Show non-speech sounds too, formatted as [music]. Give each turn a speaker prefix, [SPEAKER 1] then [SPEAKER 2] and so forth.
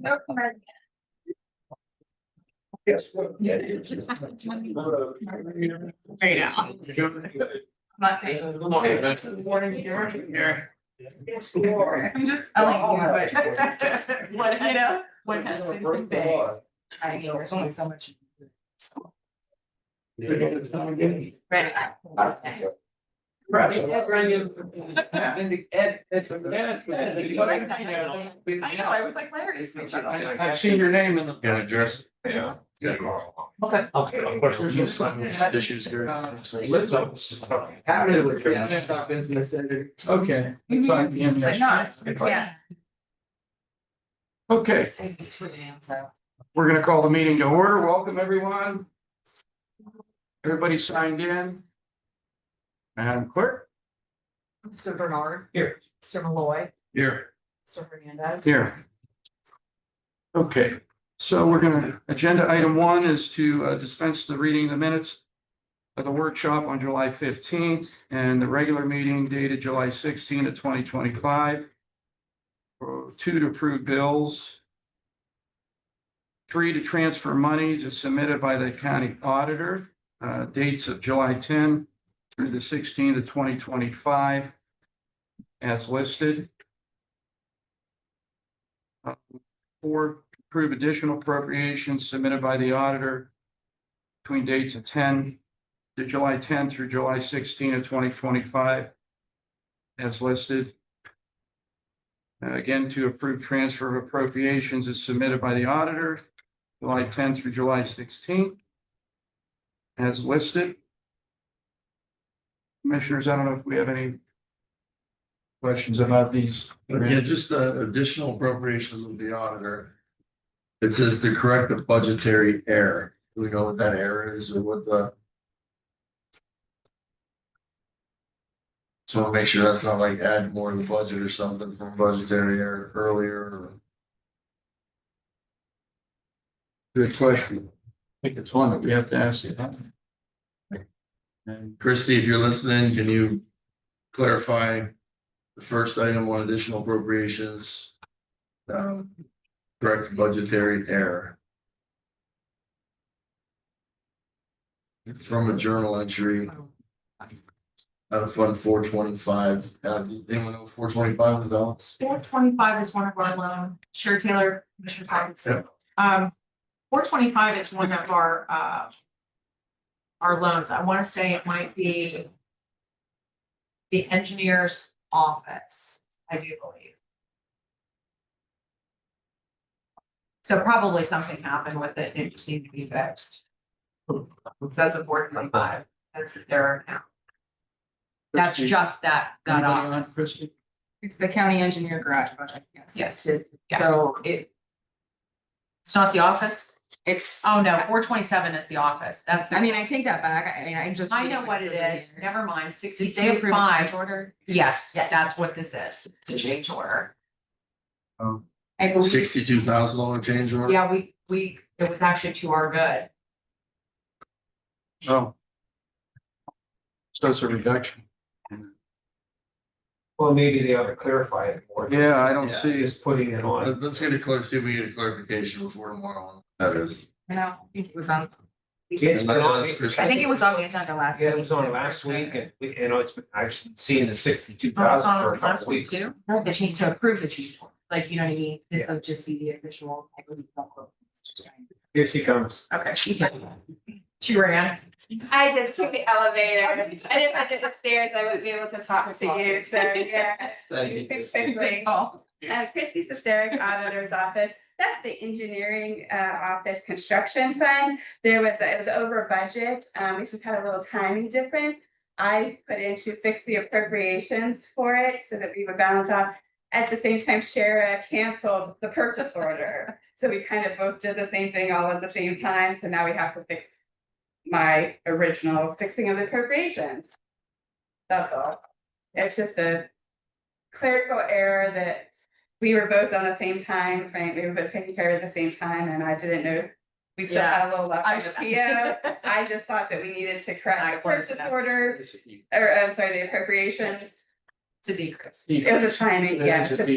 [SPEAKER 1] No comment.
[SPEAKER 2] Yes. well, yeah, it's just-
[SPEAKER 3] Right now.
[SPEAKER 1] Not saying. Warning here.
[SPEAKER 2] It's Laura.
[SPEAKER 1] I'm just.
[SPEAKER 2] Oh,
[SPEAKER 1] telling you
[SPEAKER 2] yeah.
[SPEAKER 1] [laughs] What, you know, what has
[SPEAKER 2] It's gonna
[SPEAKER 1] been
[SPEAKER 2] break the
[SPEAKER 1] conveyed.
[SPEAKER 2] law.
[SPEAKER 1] I mean, there's only so much.
[SPEAKER 2] You're gonna come again.
[SPEAKER 1] Right.
[SPEAKER 2] Right. And the Ed, Ed, Ed, Ed.
[SPEAKER 1] I know, I was like, Larry. is such a-
[SPEAKER 4] I've seen your name in the.
[SPEAKER 5] Yeah, address, yeah.
[SPEAKER 2] Yeah.
[SPEAKER 1] Okay.
[SPEAKER 2] Okay, of course, there's no sign.
[SPEAKER 5] Issues here.
[SPEAKER 4] Uh,
[SPEAKER 2] Lips up. How did it? Yeah, that's our business center.
[SPEAKER 4] Okay.
[SPEAKER 1] Mhm.
[SPEAKER 4] Five P M
[SPEAKER 1] But
[SPEAKER 4] yesterday.
[SPEAKER 1] no, yeah.
[SPEAKER 4] Okay,
[SPEAKER 1] Save this for the answer.
[SPEAKER 4] we're gonna call the meeting to order. Welcome, everyone. Everybody signed in. Madam Clerk,
[SPEAKER 1] Mr. Bernard.
[SPEAKER 2] Here.
[SPEAKER 1] Mr. Malloy.
[SPEAKER 5] Here.
[SPEAKER 1] Mr. Hernandez.
[SPEAKER 4] here. Okay, so we're gonna, agenda item one is to uh, dispense the reading of the minutes of the workshop on July fifteenth and the regular meeting dated July sixteenth of twenty twenty-five. Two to approve bills. Three to transfer monies as submitted by the county auditor, uh, dates of July ten through the sixteenth of twenty twenty-five as listed. Uh, Four, approve additional appropriations submitted by the auditor between dates of ten to July ten through July sixteen of twenty twenty-five as listed. And again, to approve transfer of appropriations as submitted by the auditor, July tenth through July sixteenth. As listed. Commissioners, I don't know if we have any questions about these.
[SPEAKER 5] Yeah, just uh, additional appropriations of the auditor. It says to correct the budgetary error. Do we know what that error is or what the? So make sure that's not like add more to the budget or something from budgetary error earlier. or-
[SPEAKER 4] Good question. I think it's one that we have to ask. And
[SPEAKER 5] Christie, if you're listening, can you clarify the first item on additional appropriations? Um, correct budgetary error. It's from a journal entry. Out of fund four twenty-five, uh, anyone know four twenty-five was dollars?
[SPEAKER 1] Four twenty-five is one of our loan, Sherry Taylor, Commissioner Patterson. Um, four twenty-five is one of our, uh, our loans. I want to say it might be the engineer's office, I do believe. So probably something happened with it. It just needed to be fixed. That's a four twenty-five. That's their account. That's just that, that
[SPEAKER 4] Anybody on,
[SPEAKER 1] office.
[SPEAKER 4] Christie?
[SPEAKER 6] It's the county engineer garage project, yes.
[SPEAKER 1] Yes, it-
[SPEAKER 6] So it,
[SPEAKER 1] it's not the office.
[SPEAKER 6] it's,
[SPEAKER 1] Oh, no, four twenty-seven is the office. That's, the-
[SPEAKER 6] I mean, I take that back, I mean, I just.
[SPEAKER 1] I know what it is.
[SPEAKER 6] Did
[SPEAKER 1] Never mind,
[SPEAKER 6] they
[SPEAKER 1] sixty-two
[SPEAKER 6] approve a change
[SPEAKER 1] five.
[SPEAKER 6] order?
[SPEAKER 1] Yes,
[SPEAKER 6] Yes.
[SPEAKER 1] that's what this is. It's a change order.
[SPEAKER 4] Oh.
[SPEAKER 6] I believe,
[SPEAKER 5] Sixty-two thousand dollar change order?
[SPEAKER 1] Yeah, we, we, it was actually to our good.
[SPEAKER 4] Oh. So it's a reduction.
[SPEAKER 2] Well, maybe they ought to clarify it more.
[SPEAKER 4] Yeah, I don't
[SPEAKER 5] Yeah.
[SPEAKER 4] see
[SPEAKER 2] Just putting it on.
[SPEAKER 5] Let- Let's get a clar, see if we get a clarification before tomorrow. That is.
[SPEAKER 6] you know, I think it was on.
[SPEAKER 2] It's been on-
[SPEAKER 6] I think it was on the agenda last week.
[SPEAKER 2] Yeah, it was on last week and we, you know, it's been, I've seen the sixty-two
[SPEAKER 1] Oh, it's
[SPEAKER 2] thousand
[SPEAKER 1] on
[SPEAKER 2] for a
[SPEAKER 1] last
[SPEAKER 2] couple
[SPEAKER 1] week
[SPEAKER 2] weeks.
[SPEAKER 1] too.
[SPEAKER 6] No, the change to approve the change order, like, you know what I mean, this will just be the official. I believe, document.
[SPEAKER 2] Here she comes.
[SPEAKER 1] Okay, she,
[SPEAKER 6] [laughs]
[SPEAKER 1] she ran.
[SPEAKER 7] I just took the elevator. I didn't have to go upstairs. I wouldn't be able to talk to you, so yeah. Quickly. Uh, Christie's Hysteric Auditor's Office, that's the engineering uh office construction fund. There was, it was over budget, um, we just had a little timing difference. I put in to fix the appropriations for it so that we would balance out. At the same time, Shara canceled the purchase order, so we kind of both did the same thing all at the same time, so now we have to fix. My original fixing of the appropriations. That's all. It's just a clerical error that we were both on the same time, frame. we were both taking care of it at the same time, and I didn't know. We still had a little left on the PO. I just thought that we needed to
[SPEAKER 1] I
[SPEAKER 7] correct the
[SPEAKER 1] closed it
[SPEAKER 7] purchase
[SPEAKER 1] up.
[SPEAKER 7] order, or I'm sorry, the appropriations.
[SPEAKER 1] [laughs] To decrease.
[SPEAKER 7] It was a timing,
[SPEAKER 4] That
[SPEAKER 7] yeah,
[SPEAKER 4] is
[SPEAKER 7] it's a
[SPEAKER 4] a